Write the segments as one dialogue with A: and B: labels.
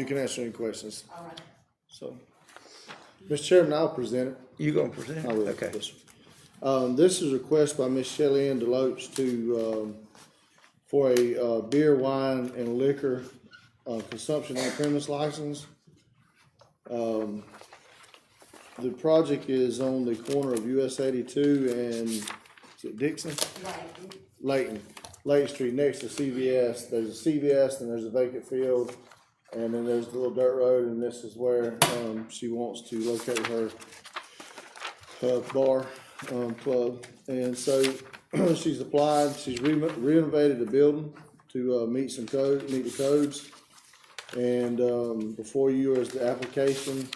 A: You can answer any questions,
B: All right.
A: so. Mr. Chairman, I'll present it.
C: You gonna present?
A: I will.
C: Okay.
A: Yes, sir. Um, this is a request by Miss Shelley Ann Deloach to, um, for a, uh, beer, wine, and liquor, uh, consumption on premise license. Um, the project is on the corner of US eighty-two and, is it Dixon?
B: Right.
A: Layton, Layton Street, next to CVS, there's a CVS and there's a vacant field. And then there's the little dirt road and this is where, um, she wants to locate her, uh, bar, um, club. And so she's applied, she's re- renovated the building to, uh, meet some code, meet the codes. And, um, before you is the application.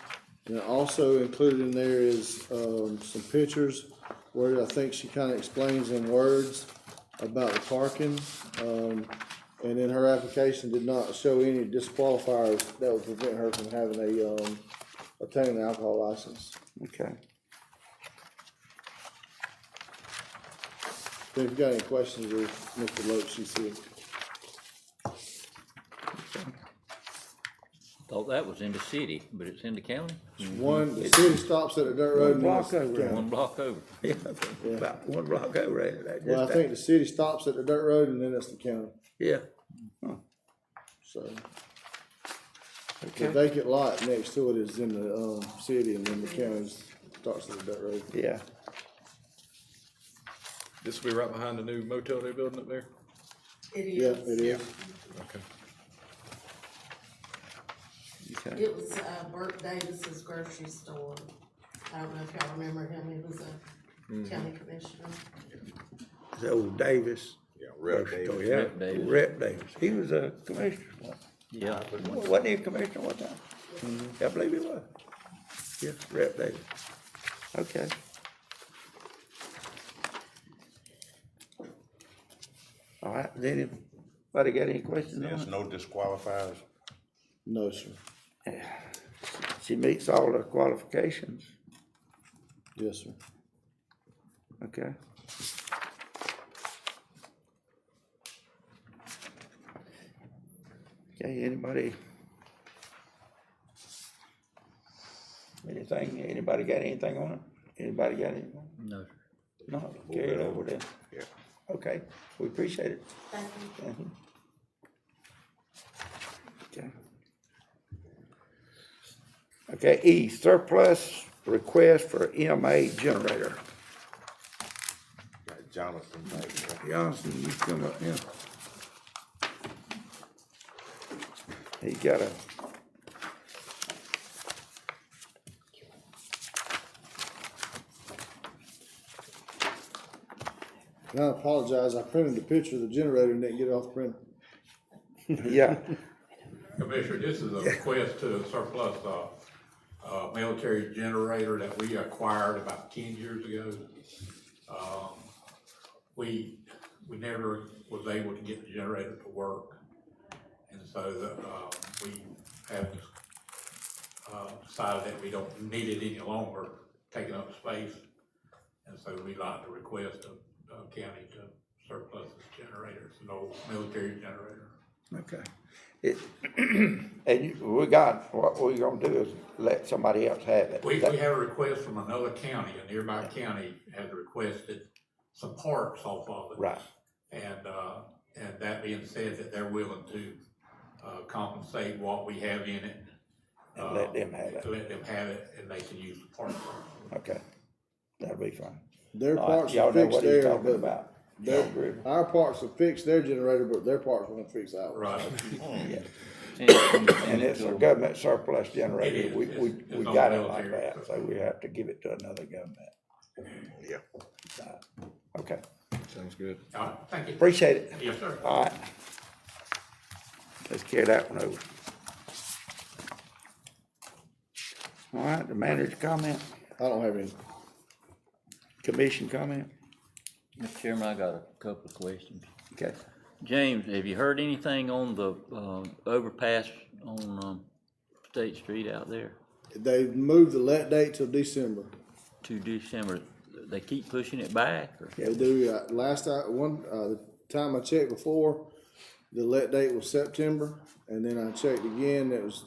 A: And also included in there is, um, some pictures where I think she kinda explains in words about the parking. Um, and then her application did not show any disqualifiers that would prevent her from having a, um, obtaining an alcohol license.
C: Okay.
A: If you've got any questions with Mr. Loach, she's here.
D: Thought that was in the city, but it's in the county,
C: Mm-hmm.
A: One, the city stops at a dirt road.
C: One
A: and it's-
C: block over.
A: Yeah.
D: one block over.
C: Yeah, about one block over there. that-
A: Well, I
C: just
A: think the city stops at the dirt road and then it's the county,
C: that- Yeah.
A: so. The
C: Okay.
A: vacant lot next to it is in the, um, city and then the county starts at the dirt road.
C: Yeah.
E: This will be right behind the new motel they're building up there?
B: It
A: Yeah,
B: is.
A: it is.
E: Okay.
C: Okay.
B: It was, uh, Bert Davis's grocery store. I don't know if y'all remember him, he was a county commissioner.
C: It's old Davis.
F: Yeah, Rep
C: grocery store,
F: Davis.
C: yeah.
D: Rep Davis.
C: Rep Davis. He was a commissioner. once.
D: Yeah,
C: Wasn't he a commissioner one time? I believe he was. Yeah, Rep Davis. Okay. All right, then, anybody got any questions on
F: There's
C: it?
F: no disqualifiers.
A: No, sir.
C: She meets all the qualifications,
A: Yes, sir.
C: okay? Okay, anybody? Anything, anybody got anything on it? Anybody got anything?
D: no, sir.
C: No, carry it over there.
F: Yeah.
C: Okay, we appreciate it.
B: Thank you.
C: Thank you. Mm-hmm. Okay. Okay, E, surplus request for MA generator.
F: Got Jonathan back there.
C: Johnson, you come up here. He got a.
A: And I apologize, I printed the picture of the generator and didn't get it off the printer.
C: Yeah,
G: Commissioner, this is a request to surplus a, uh military generator that we acquired about ten years ago. Um, We, we never was able to get the generator to work. And so, uh, we have, uh, decided that we don't need it any longer, taking up space. And so we like to request of, of county to surplus this generator, it's an old military generator.
C: okay. It, and you- we got, what we gonna do is let somebody else have it.
G: We, we had a request from another county, a nearby county had requested some parts off of it.
C: Right,
G: And, uh, and that being said, that they're willing to, uh, compensate what we have in it.
C: And let them have
G: uh,
C: it.
G: Let them have it, and they can use the parts.
C: okay, that'll be fine.
A: Their
C: All right,
A: parts
C: Y'all
A: are
C: know
A: fixed
C: what he's
A: there,
C: talking
A: but
C: about. Y'all agree?
A: their, our parts will fix their generator, but their parts won't fix ours.
G: Right.
C: And
D: And
C: it's a government surplus
G: It
C: generator,
G: is.
C: we, we,
G: It's-
C: we
G: it's
C: got it
G: all
C: like
G: military.
C: that, so we have to give it to another government.
F: Yeah.
C: Okay,
E: Sounds good.
G: All right, thank you.
C: appreciate it.
G: Yes, sir.
C: All right. Let's carry that one over. All right, the manager comment,
A: I don't have any.
C: commission comment,
D: Mr. Chairman, I got a couple of questions.
C: okay.
D: James, have you heard anything on the, um, overpass on, um, State Street out there?
A: They moved the let date till December.
D: To December, they keep pushing it back, or?
A: They do, uh, last I, one, uh, the time I checked before, the let date was September, and then I checked again, it was